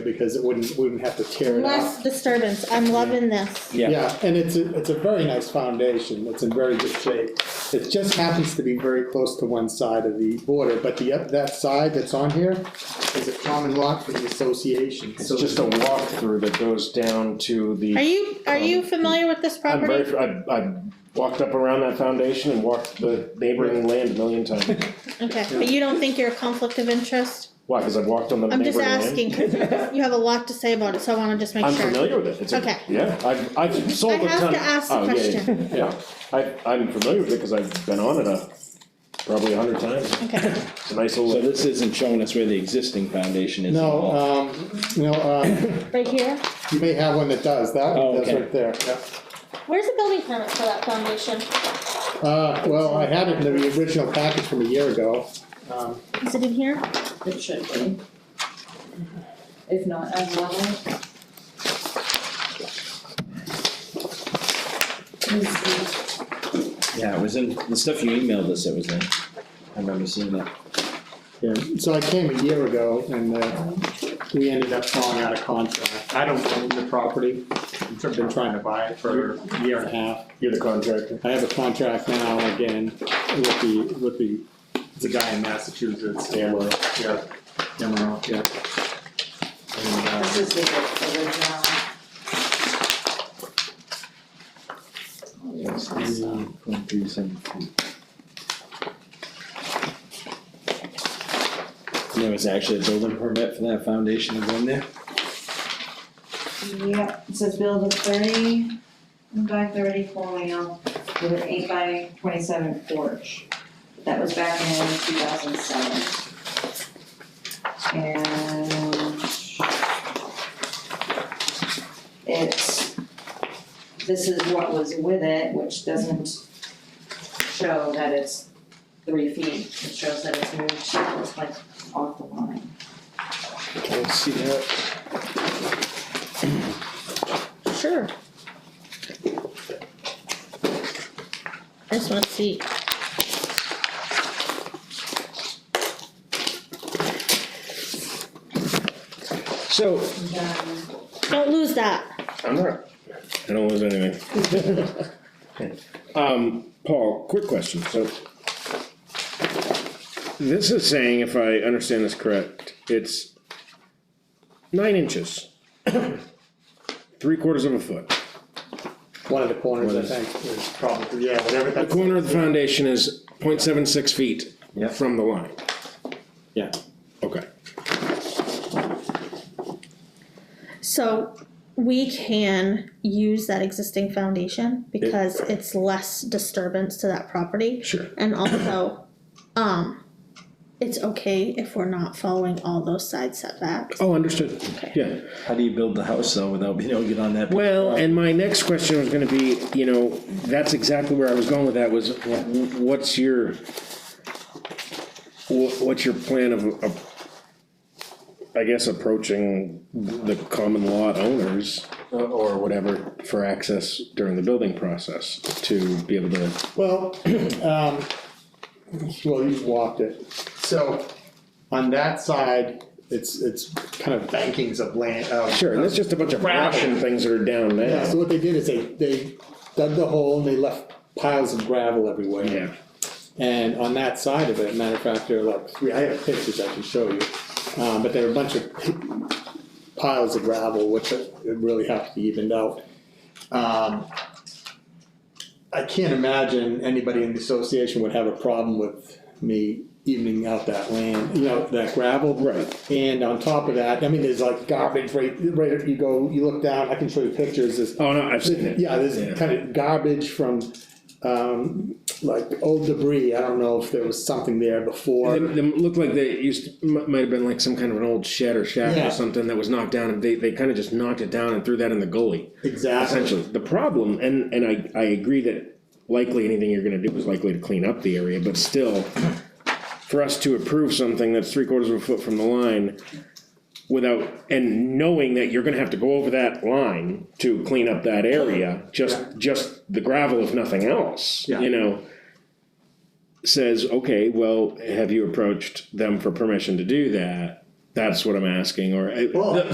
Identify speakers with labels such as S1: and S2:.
S1: because it wouldn't, we wouldn't have to tear it up.
S2: Less disturbance, I'm loving this.
S3: Yeah.
S1: Yeah, and it's a, it's a very nice foundation, it's in very good shape. It just happens to be very close to one side of the border, but the, oth- that side that's on here is a common lot for the association,
S3: It's
S1: so.
S3: just a walkthrough that goes down to the.
S2: Are you, are you
S3: Um,
S2: familiar with this
S3: I'm
S2: property?
S3: very, I, I walked up around that foundation and walked the neighboring land a million times.
S2: Okay, but you don't think you're a conflict of interest?
S3: Why, because I've walked on the
S2: I'm
S3: neighboring
S2: just
S3: land?
S2: asking, 'cause you have a lot to say about it, so I wanna just make
S3: I'm
S2: sure.
S3: familiar with it, it's a,
S2: Okay.
S3: yeah, I've, I've sold
S2: I
S3: a ton.
S2: have to ask the
S3: Oh, yeah, yeah,
S2: question.
S3: Yeah, I, I'm familiar with it, cause I've been on it a, probably a hundred times,
S2: Okay,
S3: it's a nice
S4: So
S3: little,
S4: this isn't showing us where the existing foundation is at
S1: No,
S4: all?
S1: um, no, um,
S2: right here,
S1: you may have one that does, that
S4: Oh,
S1: one does
S4: okay.
S1: right there, yeah.
S2: where's the building permit for that foundation?
S1: Uh, well, I had it in the original package from a year ago. Um,
S2: Is it in here?
S5: It should be. If not, I will. This is-
S4: Yeah, it was in, the stuff you emailed us, it was in. I remember seeing that.
S1: Yeah, so I came a year ago and uh, we ended up falling out of contract. I don't own the property. I've been trying to buy it for a year and a half.
S3: you're the contractor.
S1: I have a contract now again with the, with the, it's a guy in Massachusetts, Taylor, yeah, Emerald, yeah. And, uh,
S5: This is the original.
S4: There was actually a building permit for that foundation to go in there?
S5: Yep, it says build a thirty by thirty colonial with an eight by twenty-seven porch. That was back in two thousand seven. And it's, this is what was with it, which doesn't show that it's three feet. It shows that it's moved, so it's like off the line.
S4: Can I see that?
S2: Sure. I just wanna see.
S4: So,
S5: And, um,
S2: Don't lose that.
S3: I'm not.
S4: I don't lose anything. Um, Paul, quick question, so. This is saying, if I understand this correct, it's nine inches. Three quarters of a foot.
S1: One of the corners,
S4: What
S1: I
S4: is-
S1: think, is probably, yeah, whatever
S6: The
S1: that's.
S6: corner of the foundation is 0.76 feet
S4: Yeah.
S6: from the line,
S1: Yeah.
S6: okay.
S2: So we can use that existing foundation because it's less disturbance to that property.
S6: Sure.
S2: And also, um, it's okay if we're not following all those side setbacks.
S6: Oh, understood, yeah.
S4: How do you build the house though without being able to get on that?
S6: Well, and my next question was gonna be, you know, that's exactly where I was going with that, was wh- what's your, wha- what's your plan of, of, I guess approaching the common lot owners uh, or whatever for access during the building process to be able to
S1: Well, um, well, you've walked it. So on that side, it's, it's kind of bankings of land, of
S6: Sure, and that's just a bunch of
S1: Gravel.
S6: brush and things that are down
S1: Yeah,
S6: now.
S1: so what they did is they, they dug the hole and they left piles of gravel everywhere.
S6: Yeah,
S1: And on that side of it, matter of fact, there are like three, I have pictures I can show you, um, but there are a bunch of piles of gravel, which it really have to be evened out. Um, I can't imagine anybody in the association would have a problem with me evening out that land, you know, that gravel.
S6: Right.
S1: And on top of that, I mean, there's like garbage right, right, if you go, you look down, I can show you pictures, there's
S6: oh no, I've seen it.
S1: yeah, there's kind of garbage from, um, like old debris, I don't know if there was something there before.
S6: They, they looked like they used, to- mi- might have been like some kind of an old shed or shack
S1: Yeah.
S6: or something that was knocked down, and they, they kind of just knocked it down and threw that in the gully.
S1: Exactly,
S6: Essentially, the problem, and, and I, I agree that likely anything you're gonna do is likely to clean up the area, but still, for us to approve something that's three quarters of a foot from the line without, and knowing that you're gonna have to go over that line to clean up that area, just, just the gravel if nothing else,
S1: Yeah.
S6: you know? Says, okay, well, have you approached them for permission to do that? That's what I'm asking, or, uh,
S1: Well-
S6: the-